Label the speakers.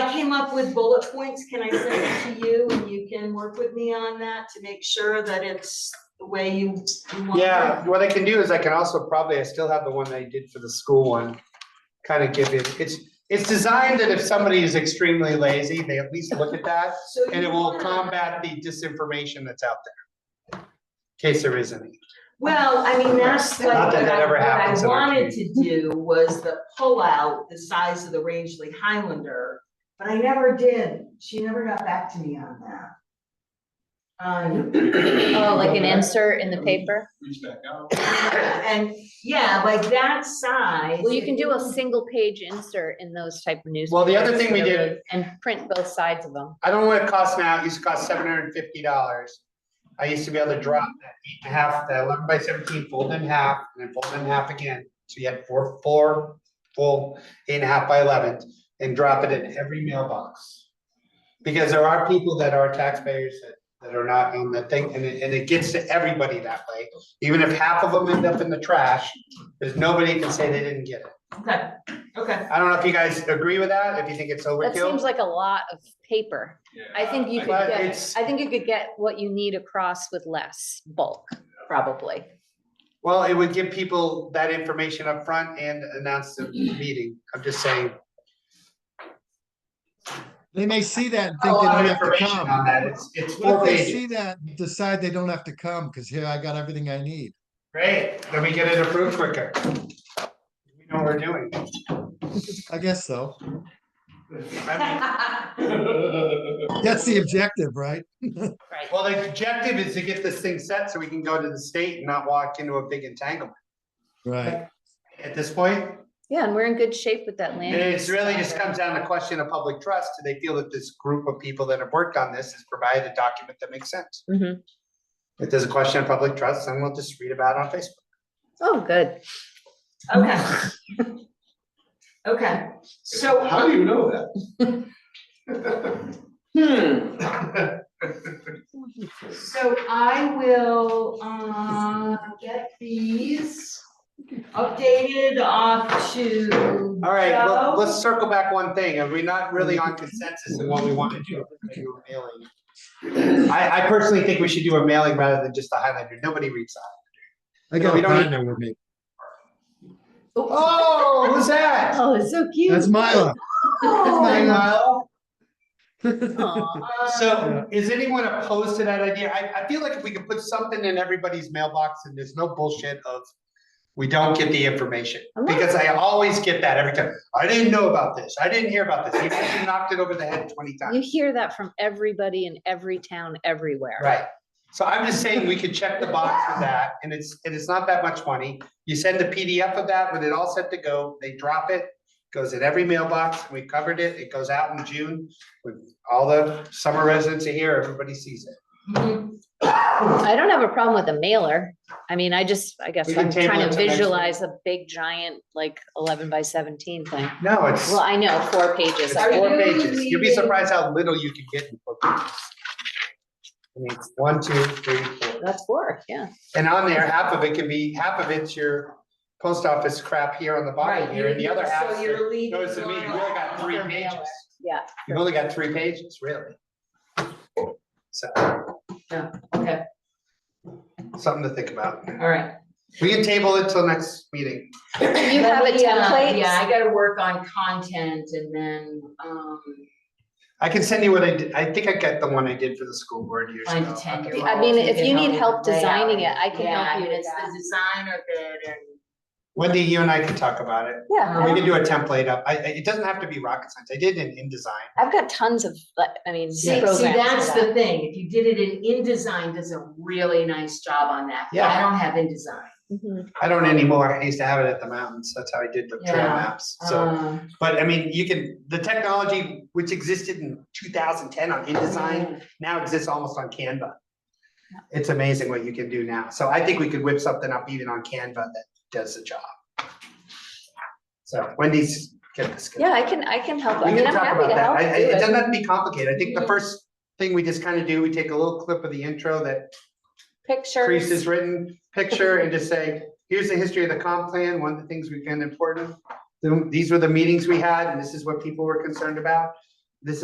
Speaker 1: come up with bullet points, can I send it to you and you can work with me on that to make sure that it's the way you you want it?
Speaker 2: Yeah, what I can do is I can also probably, I still have the one I did for the school one. Kind of give it, it's, it's designed that if somebody is extremely lazy, they at least look at that
Speaker 1: So
Speaker 2: and
Speaker 1: you
Speaker 2: it will
Speaker 1: wanna-
Speaker 2: combat the disinformation that's out there. in Case there is any.
Speaker 1: Well, I mean, that's like
Speaker 2: Not
Speaker 1: what
Speaker 2: that that
Speaker 1: I,
Speaker 2: ever
Speaker 1: what I
Speaker 2: happens in our
Speaker 1: wanted to do was the pull out the size of the Rangeley Highlander, but I never did. She never got back to me on that. Um,
Speaker 3: Oh, like an insert in the paper?
Speaker 4: Reach back out.
Speaker 1: and yeah, like that size.
Speaker 3: Well, you can do a single page insert in those type of newspapers.
Speaker 2: Well, the other thing we did-
Speaker 3: And print both sides of them.
Speaker 2: I don't know what it costs now, it used to cost seven hundred and fifty dollars. I used to be able to drop that eight and a half, that eleven by seventeen, fold in half, and then fold in half again. So you had four, four, full, eight and a half by eleven, and drop it in every mailbox. Because there are people that are taxpayers that, that are not on that thing, and it, and it gets to everybody that way. Even if half of them end up in the trash, there's nobody can say they didn't get it.
Speaker 1: Okay, okay.
Speaker 2: I don't know if you guys agree with that, if you think it's
Speaker 3: That seems
Speaker 2: overkill.
Speaker 3: like a lot of paper.
Speaker 4: Yeah,
Speaker 3: I think you could
Speaker 2: But
Speaker 3: get,
Speaker 2: it's-
Speaker 3: I think you could get what you need across with less bulk, probably.
Speaker 2: Well, it would give people that information up front and announce the
Speaker 5: Mm-hmm.
Speaker 2: meeting. I'm just saying.
Speaker 5: They may see that and
Speaker 2: A
Speaker 5: think they
Speaker 2: lot
Speaker 5: don't
Speaker 2: of
Speaker 5: have to
Speaker 2: information on
Speaker 5: come.
Speaker 2: that. It's, it's
Speaker 5: What
Speaker 2: four
Speaker 5: if they see
Speaker 2: pages.
Speaker 5: that, and decide they don't have to come, because here I got everything I need.
Speaker 2: Great, then we get it approved quicker. We know what we're doing.
Speaker 5: I guess so.
Speaker 2: I mean,
Speaker 5: That's the objective, right?
Speaker 2: Well, the objective is to get this thing set so we can go to the state and not walk into a big entanglement.
Speaker 5: Right.
Speaker 2: At this point,
Speaker 3: Yeah, and we're in good shape with that land.
Speaker 2: it's
Speaker 3: use
Speaker 2: really
Speaker 3: plan.
Speaker 2: just comes down to question of public trust. Do they feel that this group of people that have worked on this has provided a document that makes sense?
Speaker 3: Mhm.
Speaker 2: If there's a question of public trust, then we'll just read about it on Facebook.
Speaker 3: Oh, good.
Speaker 1: Okay. Okay, so.
Speaker 4: How do you know that?
Speaker 1: Hmm. So I will, uh, get these updated off to
Speaker 2: All right, well,
Speaker 1: Joe.
Speaker 2: let's circle back one thing. Are we not really on consensus in what we want to do? Maybe we're mailing. I, I personally think we should do a mailing rather than just a highlighter. Nobody reads that.
Speaker 5: I
Speaker 2: No, we
Speaker 5: got
Speaker 2: don't need-
Speaker 5: Rhino with me.
Speaker 2: Oh, who's that?
Speaker 3: Oh, it's so cute.
Speaker 5: That's Myla.
Speaker 3: Oh.
Speaker 2: Hey, Lyle.
Speaker 3: Aw.
Speaker 2: So is anyone opposed to that idea? I, I feel like if we could put something in everybody's mailbox and there's no bullshit of we don't get the information,
Speaker 3: I'm not-
Speaker 2: because I always get that every time. I didn't know about this. I didn't hear about this. You guys knocked it over the head twenty times.
Speaker 3: You hear that from everybody in every town, everywhere.
Speaker 2: Right, so I'm just saying we could check the box for that, and it's, and it's not that much money. You send a PDF of that with it all set to go, they drop it, goes in every mailbox, we covered it, it goes out in June. With all the summer residents are here, everybody sees it.
Speaker 1: Mhm.
Speaker 3: I don't have a problem with a mailer. I mean, I just, I guess
Speaker 2: We can
Speaker 3: I'm
Speaker 2: table it
Speaker 3: trying to
Speaker 2: till next week.
Speaker 3: visualize a big giant, like eleven by seventeen thing.
Speaker 2: No, it's,
Speaker 3: Well, I know, four pages.
Speaker 2: it's
Speaker 1: Are
Speaker 2: four
Speaker 1: you
Speaker 2: pages, you'd be
Speaker 1: leaving-
Speaker 2: surprised how little you can get in four pages. I mean, it's one, two, three, four,
Speaker 3: That's four, yeah.
Speaker 2: and on there, half of it can be, half of it's your post office crap here on the bottom
Speaker 1: Right,
Speaker 2: here, and the other half.
Speaker 1: So you're leaving.
Speaker 2: Notice to me, you
Speaker 1: one
Speaker 2: only got three
Speaker 3: Your mailer.
Speaker 2: pages.
Speaker 3: Yeah,
Speaker 2: You've only got three pages, really. So,
Speaker 1: Okay,
Speaker 2: something to think about.
Speaker 1: all right.
Speaker 2: We can table it till next meeting.
Speaker 3: you have a
Speaker 1: Let me, uh,
Speaker 3: template?
Speaker 1: Yeah, I gotta work on content and then, um,
Speaker 2: I can send you what I did, I think I got the one I did for the school board years
Speaker 1: find a
Speaker 2: ago.
Speaker 1: ten year old.
Speaker 3: I mean, if you need help designing it, I can
Speaker 1: Yeah, I
Speaker 3: help
Speaker 1: mean,
Speaker 3: you with
Speaker 1: it's the
Speaker 3: that.
Speaker 1: design of it and.
Speaker 2: Wendy, you and I can talk about it.
Speaker 3: Yeah,
Speaker 2: We
Speaker 3: I've-
Speaker 2: can do a template up. I, I- it doesn't have to be rocket science. I did it in InDesign.
Speaker 3: I've got tons of, like, I mean.
Speaker 1: See,
Speaker 3: programs
Speaker 1: see,
Speaker 3: for
Speaker 1: that's
Speaker 3: that.
Speaker 1: the thing, if you did it in InDesign, does a really nice job on that, but I
Speaker 2: Yeah.
Speaker 1: don't have InDesign.
Speaker 3: Mhm.
Speaker 2: I don't anymore. I used to have it at the mountains. That's how I did the trail
Speaker 1: Yeah.
Speaker 2: maps. So,
Speaker 1: Um,
Speaker 2: but I mean, you can, the technology which existed in two thousand ten on InDesign now exists almost on Canva. It's amazing what you can do now. So I think we could whip something up even on Canva that does the job. So Wendy's get this. going.
Speaker 3: Yeah, I can, I can help.
Speaker 2: We
Speaker 3: I mean,
Speaker 2: can
Speaker 3: I'm
Speaker 2: talk
Speaker 3: happy
Speaker 2: about
Speaker 3: to
Speaker 2: that.
Speaker 3: help.
Speaker 2: I- I-
Speaker 3: do
Speaker 2: It
Speaker 3: it.
Speaker 2: doesn't have to be complicated. I think the first thing we just kind of do, we take a little clip of the intro that Reese
Speaker 3: Pictures.
Speaker 2: has written, picture and just say, here's the history of the comp plan, one of the things we found important. Then These were the meetings we had and this is what people were concerned about.